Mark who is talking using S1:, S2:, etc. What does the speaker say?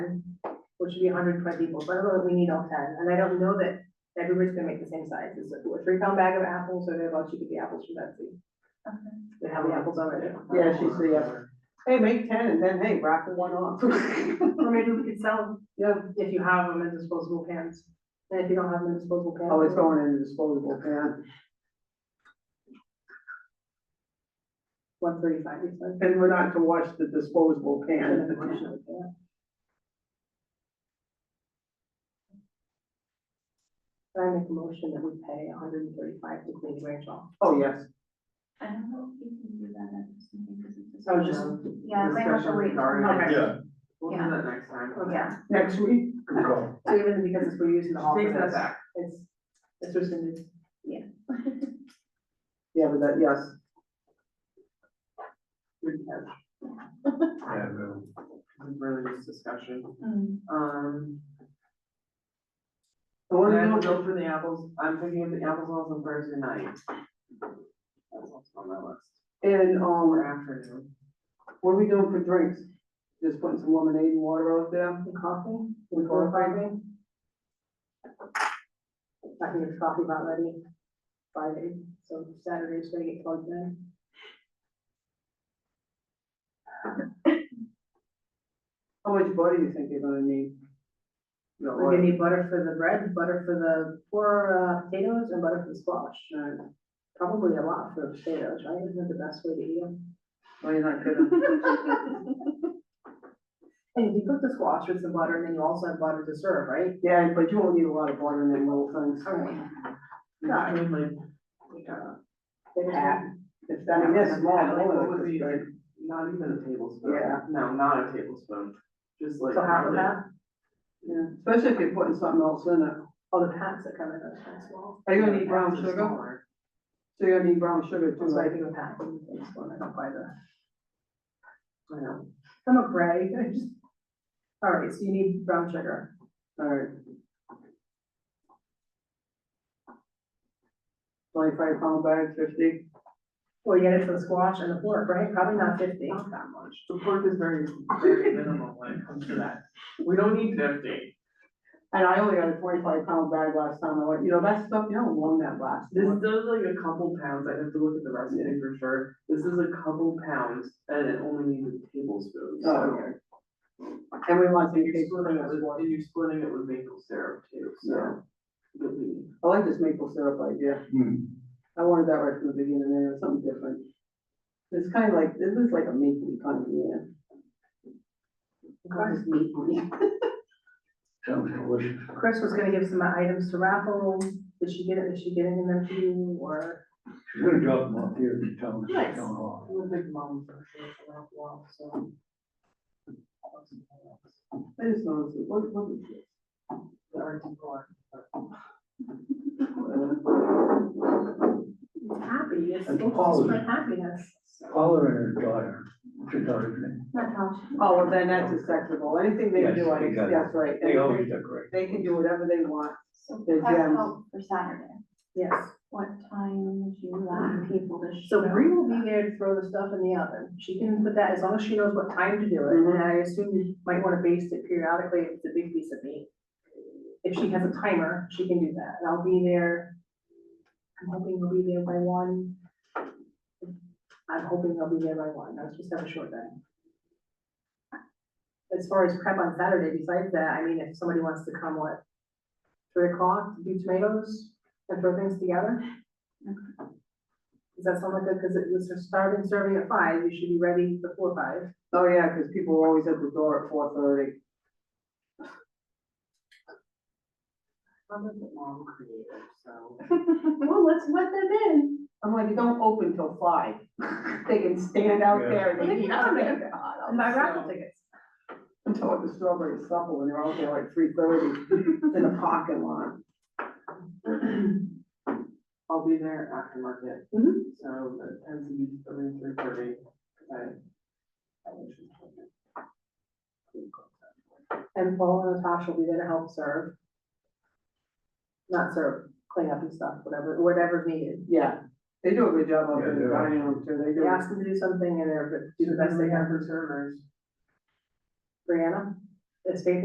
S1: which would be hundred twenty people, but I don't know that we need all ten, and I don't know that everybody's gonna make the same size, it's like a three pound bag of apples, or thereabouts, you could be apples from Betsy. They have the apples already.
S2: Yeah, she's the, uh, hey, make ten and then, hey, raffle one off.
S1: Or maybe we could sell, them if you have them in disposable pans, and if you don't have them in disposable pans.
S2: Always going in the disposable pan.
S1: One thirty-five, you said.
S2: And we're not to wash the disposable
S1: And
S2: pan.
S1: then one should, yeah. Can I make a motion that we pay hundred and thirty-five to Queen Ranch Hall.
S2: Oh, yes.
S3: I don't know if you can do that at this meeting because it's.
S1: So Oh, just-
S3: Yeah, it might have to wait. till
S4: Discussion
S1: Okay.
S3: next-
S4: Yeah.
S5: We'll do
S3: Yeah.
S5: that next time.
S3: Yeah,
S2: Next week,
S4: Control.
S1: So even because it's, we're using the hall. for
S5: Take that
S1: this,
S5: back.
S1: It's, it's rescinded.
S2: yeah, but that, yes.
S5: Good catch.
S4: Yeah, no.
S5: Really nice discussion.
S3: Mm.
S5: Um.
S2: So
S5: What
S2: what
S5: do
S2: are
S5: you
S2: we doing?
S5: go for the apples? I'm thinking of the apples also on Thursday night. That's also on my list.
S2: And,
S5: Or
S2: um,
S5: afternoon.
S2: what are we doing for drinks? Just putting some lemonade and water out there?
S1: And coffee, we
S2: We go
S1: go
S2: Friday?
S1: Friday. I can get coffee about ready Friday, so Saturday's gonna get plugged in.
S2: How much butter do you think you're gonna need? You know,
S1: We're gonna need butter for the bread, butter for the, for uh, potatoes and butter for the squash.
S2: or-
S1: Probably a lot for potatoes, right? Isn't that the best way to eat them?
S2: Well, you're not gonna,
S1: And if you cook the squash with some butter, then you also have butter to serve, right?
S2: yeah, but you won't need a lot of butter in them little things.
S1: Alright.
S5: Yeah, I mean, like, uh,
S1: The hat,
S2: It's that, I guess, small,
S5: Yeah, like, what
S2: little,
S5: would
S2: it's
S5: be,
S2: like-
S5: like, Not even a tablespoon.
S2: Yeah.
S5: No, not a tablespoon, just like.
S1: so half of
S5: really-
S1: that,
S2: Yeah, especially if you're putting something else in it.
S1: all Oh, the hats that come in those are small.
S2: Are you gonna need brown
S5: Just
S2: sugar?
S5: smaller.
S2: So you're gonna need brown sugar too,
S1: That's why I
S2: right?
S1: do a pack and things when I don't buy the,
S5: I know.
S1: I'm a gray, I just. Alright, so you need brown sugar.
S2: Alright. Twenty-five pound bag, fifty,
S1: Well, you get it for the squash and the pork, right? Probably not fifty.
S5: Not that much. The pork is very, very minimal when it comes to that. We don't need fifty.
S2: and I only got a twenty-five pound bag last time, I went, you know, that stuff, you don't want that last.
S5: This
S2: one.
S5: is only like a couple pounds, I have to look at the recipe for sure, this is a couple pounds, and it only needs a tablespoon,
S2: Oh,
S5: so.
S2: okay. And we want to
S5: And you're
S2: take
S5: splitting it with,
S2: I
S5: and you're splitting it with maple syrup too, so. You'll be,
S2: like this maple syrup idea,
S4: Hmm.
S2: I wanted that right from the beginning, and it was something different. It's kind of like, this is like a maple kind of, yeah. It's maple, yeah.
S4: Sounds delicious.
S1: Chris was gonna give some items to raffle, did she get it, did she get any of them to you, or?
S4: She's gonna drop them off here in town, in
S1: Nice.
S4: town hall.
S5: I'm a big mom for sure, for that walk, so.
S2: I just noticed, it. what, what is this?
S5: There are people are-
S2: Uh,
S1: Happy, it's,
S4: And
S1: it's just
S4: Paula's-
S1: my happiness.
S4: Paula and her daughter, it's her daughter's name.
S3: Not how.
S2: Oh, well, then that's acceptable, anything they
S4: Yes,
S2: do, I,
S4: exactly.
S2: that's right,
S4: They always
S2: anything,
S4: decorate.
S2: they can do whatever they want.
S3: So
S2: The
S3: prep
S2: gems.
S3: out for Saturday.
S1: Yes,
S3: What time would you like people to show?
S1: so Bree will be there to throw the stuff in the oven, she can put that, as long as she knows what time to do it, and I assume you might wanna baste it periodically if it's a big piece of meat. If she has a timer, she can do that, and I'll be there, I'm hoping we'll be there by one. I'm hoping I'll be there by one, I was just have a short day. As far as prep on Saturday, besides that, I mean, if somebody wants to come, what, three o'clock, do tomatoes and throw things together? Does that sound like good? Because it was starting serving at five, you should be ready before five.
S2: Oh, yeah, because people are always at the door at four thirty.
S5: I'm a mom creative, so.
S1: Well, let's let them in.
S2: I'm like, you don't open till five. They can stand out there
S1: Yeah.
S2: and eat.
S1: Yeah.
S2: I'm like, God,
S1: And my raffle
S2: so-
S1: tickets.
S2: I'm talking the strawberry supper when they're out there like three thirty in the parking lot.
S5: I'll be there after market.
S1: Mhm.
S5: So that tends to be around three thirty, I. I wish it was like that.
S1: And Paul and Natasha will be there to help serve. Not serve, clean up and stuff, whatever, whatever's needed.
S2: Yeah, they do a good job out there in the
S4: Yeah, they do.
S2: dining room too. They
S1: You
S2: do.
S1: ask them to do something and they're, but do the best they can.
S5: for servers.
S1: Brianna, it's faith